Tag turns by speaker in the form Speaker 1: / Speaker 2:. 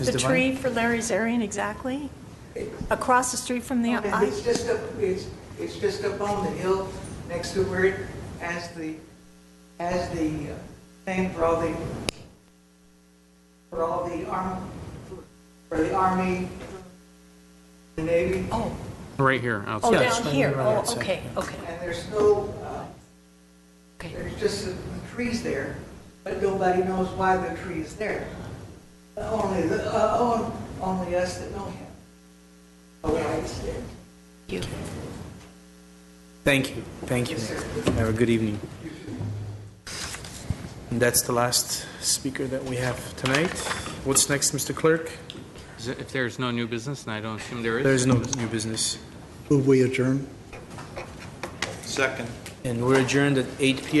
Speaker 1: Ms.
Speaker 2: The
Speaker 1: Devine?
Speaker 2: tree for Larry's Arian, exactly? Across the street from the, I,
Speaker 3: It's just up, it's, it's just up on the hill next to where it, as the, as the uh, thing for all the, for all the arm, for the army, the navy,
Speaker 2: oh,
Speaker 4: Right here,
Speaker 2: oh,
Speaker 4: outside.
Speaker 1: Yeah, it's
Speaker 2: down
Speaker 1: right
Speaker 2: here,
Speaker 1: around
Speaker 2: oh,
Speaker 1: outside,
Speaker 2: okay,
Speaker 1: yeah.
Speaker 2: okay,
Speaker 3: and there's no, uh,
Speaker 2: okay.
Speaker 3: there's just some trees there, but nobody knows why the tree is there. Only, the- uh, on- only us that know him. Oh, I understand.
Speaker 2: You.
Speaker 1: Thank you, thank you.
Speaker 3: Yes, sir.
Speaker 1: Have a good evening. And that's the last speaker that we have tonight. What's next, Mr. Clerk?
Speaker 4: Is it- If there's no new business, and I don't assume there is.
Speaker 1: There is no new business.
Speaker 5: Move we adjourn?
Speaker 1: And we're adjourned at 8 PM.